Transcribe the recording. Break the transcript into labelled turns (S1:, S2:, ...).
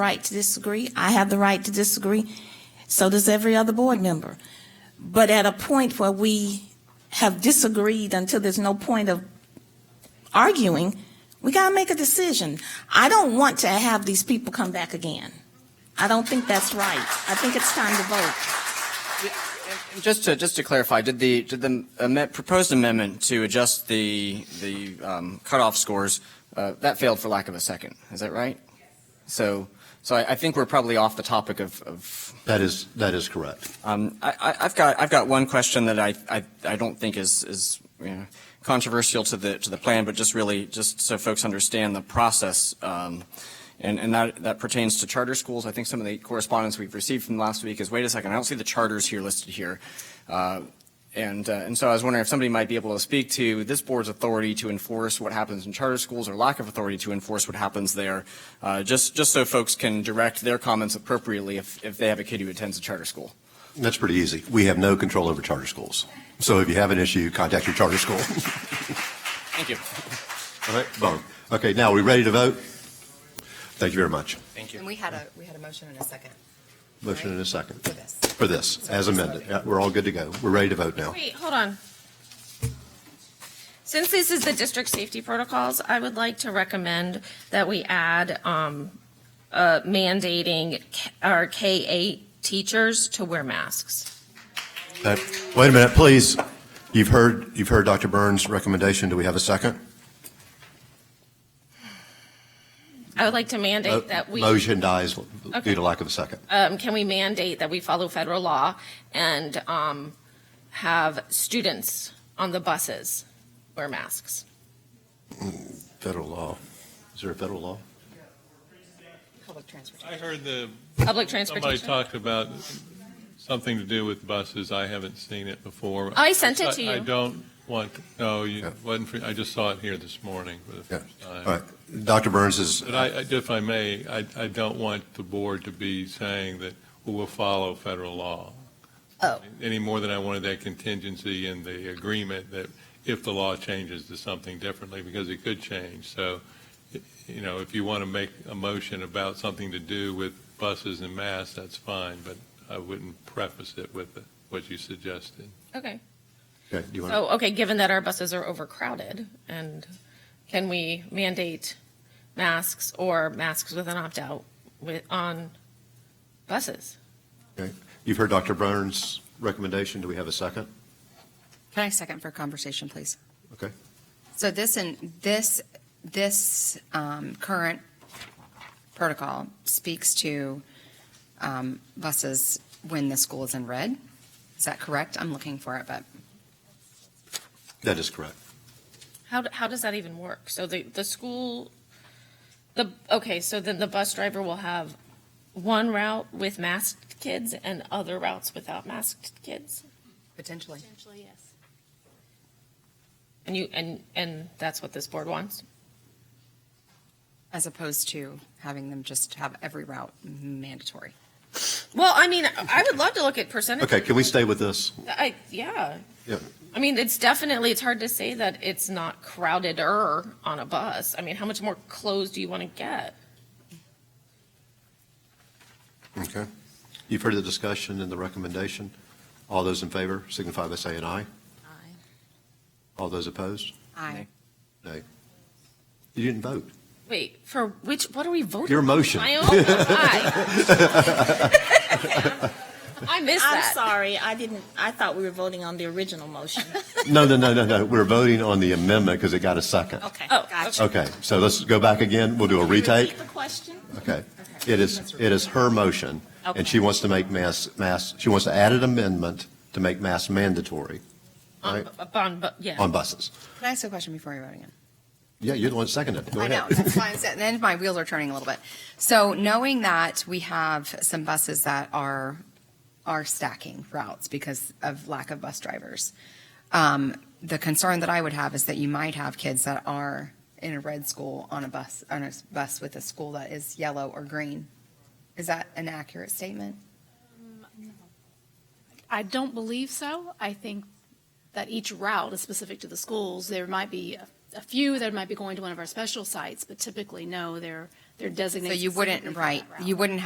S1: right to disagree. I have the right to disagree. So does every other board member. But at a point where we have disagreed until there's no point of arguing, we got to make a decision. I don't want to have these people come back again. I don't think that's right. I think it's time to vote.
S2: And Just to, just to clarify, did the, did the amend- proposed amendment to adjust the, the um, cutoff scores, uh, that failed for lack of a second, is that right? So, so I, I think we're probably off the topic of, of,
S3: That is, that is correct.
S2: um, I, I- I've got, I've got one question that I, I, I don't think is, is, you know, controversial to the, to the plan, but just really, just so folks understand the process. um, And, and that, that pertains to charter schools. I think some of the correspondence we've received from last week is, wait a second, I don't see the charters here listed here. Uh, And, uh, and so I was wondering if somebody might be able to speak to this board's authority to enforce what happens in charter schools or lack of authority to enforce what happens there, uh, just, just so folks can direct their comments appropriately if, if they have a kid who attends a charter school.
S3: That's pretty easy. We have no control over charter schools. So if you have an issue, contact your charter school.
S2: Thank you.
S3: All right, boom. Okay, now, are we ready to vote? Thank you very much.
S2: Thank
S4: And we had a, we had a motion and a second
S3: Motion in a second
S4: for this.
S3: for this, as amended. Yeah, We're all good to go. We're ready to vote now.
S5: Wait, hold on. Since this is the district safety protocols, I would like to recommend that we add um, uh, mandating K- our K-8 teachers to wear masks.
S3: Uh, Wait a minute, please. You've heard, you've heard Dr. Burns' recommendation. Do we have a second?
S5: I would like to mandate that we,
S3: Uh, Motion dies due
S5: Okay.
S3: to lack of a second.
S5: um, can we mandate that we follow federal law and um, have students on the buses wear masks?
S3: Federal law. Is there a federal law?
S4: Public transportation.
S6: I heard the,
S5: Public
S6: somebody
S5: transportation.
S6: talked about something to do with buses. I haven't seen it before.
S5: I sent it to
S6: I
S5: you.
S6: don't want, no, you,
S3: Yeah.
S6: wasn't, free- I just saw it here this morning for the
S3: Yeah.
S6: first
S3: All
S6: time.
S3: right. Dr. Burns is,
S6: But I, I- if I may, I, I don't want the board to be saying that we will follow federal law.
S5: Oh.
S6: Any more than I wanted that contingency in the agreement that if the law changes to something differently, because it could change. So, you know, if you want to make a motion about something to do with buses and masks, that's fine, but I wouldn't preface it with what you suggested.
S5: Okay.
S3: okay, do you want to?
S5: So, okay, given that our buses are overcrowded, and can we mandate masks or masks with an opt-out with, on buses?
S3: Okay. You've heard Dr. Burns' recommendation. Do we have a second?
S4: Can I second for conversation, please?
S3: Okay.
S4: So this and, this, this um, current protocol speaks to um, buses when the school is in red. Is that correct? I'm looking for it, but
S3: That is correct.
S5: How, d- how does that even work? So the, the school, the, okay, so then the bus driver will have one route with masked kids and other routes without masked kids?
S4: potentially.
S7: Potentially, yes.
S5: And you, and, and that's what this board wants?
S4: As opposed to having them just have every route mandatory.
S5: Well, I mean, I would love to look at percentages.
S3: Okay, can we stay with this?
S5: I, yeah.
S3: Yeah.
S5: I mean, it's definitely, it's hard to say that it's not crowded-er on a bus. I mean, how much more closed do you want to get?
S3: Okay. You've heard the discussion and the recommendation. All those in favor signify by saying aye.
S7: Aye.
S3: All those opposed?
S4: Aye.
S3: Nay. You didn't vote.
S5: Wait, for which, what are we voting?
S3: Your
S5: on?
S3: motion.
S5: My own, aye. I missed
S1: I'm
S5: that.
S1: sorry, I didn't, I thought we were voting on the original motion.
S3: No, no, no, no, no. We're voting on the amendment because it got a second.
S1: Okay,
S5: Oh,
S1: gotcha.
S3: Okay, so let's go back again. We'll do a retake.
S1: Repeat the question?
S3: Okay. It is, it is her motion,
S1: Okay.
S3: and she wants to make mass, mass, she wants to add an amendment to make mass mandatory
S5: On, on, bu- yeah.
S3: on buses.
S4: Can I ask a question before you're voting?
S3: Yeah, you're the one that seconded. it. Go
S4: I know,
S3: ahead.
S4: that's why I'm saying, then my wheels are turning a little bit. So knowing that we have some buses that are, are stacking routes because of lack of bus drivers, um, the concern that I would have is that you might have kids that are in a red school on a bus, on a s- bus with a school that is yellow or green. Is that an accurate statement?
S7: I don't believe so. I think that each route is specific to the schools. There might be a- a few that might be going to one of our special sites, but typically, no, they're
S4: they're designated.
S7: So you wouldn't,
S4: specifically for that
S7: right,
S4: route.
S7: you wouldn't